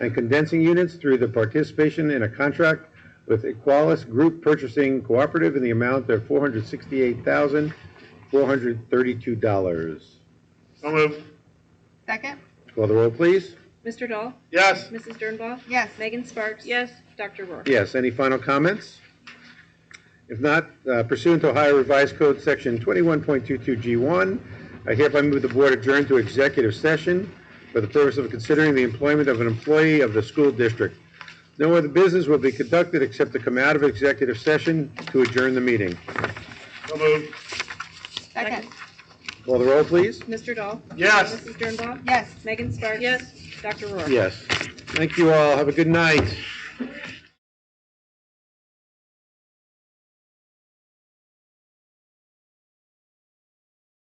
and condensing units through the participation in a contract with Equalis Group Purchasing Cooperative in the amount of $468,432. So moved. Second? Call the roll, please. Mr. Dahl? Yes. Mrs. Dernbaugh? Yes. Megan Sparks? yes, Dr. Rohr? Yes, any final comments? If not, uh, pursuant to Ohio Revised Code, Section 21.22G1, I hereby move the board adjourn to executive session for the purpose of considering the employment of an employee of the school district. No other business will be conducted except to come out of executive session to adjourn the meeting. So moved. Second? Call the roll, please. Mr. Dahl? Yes. Mrs. Dernbaugh? Yes. Megan Sparks? yes. Dr. Rohr? Yes. Thank you all. Have a good night.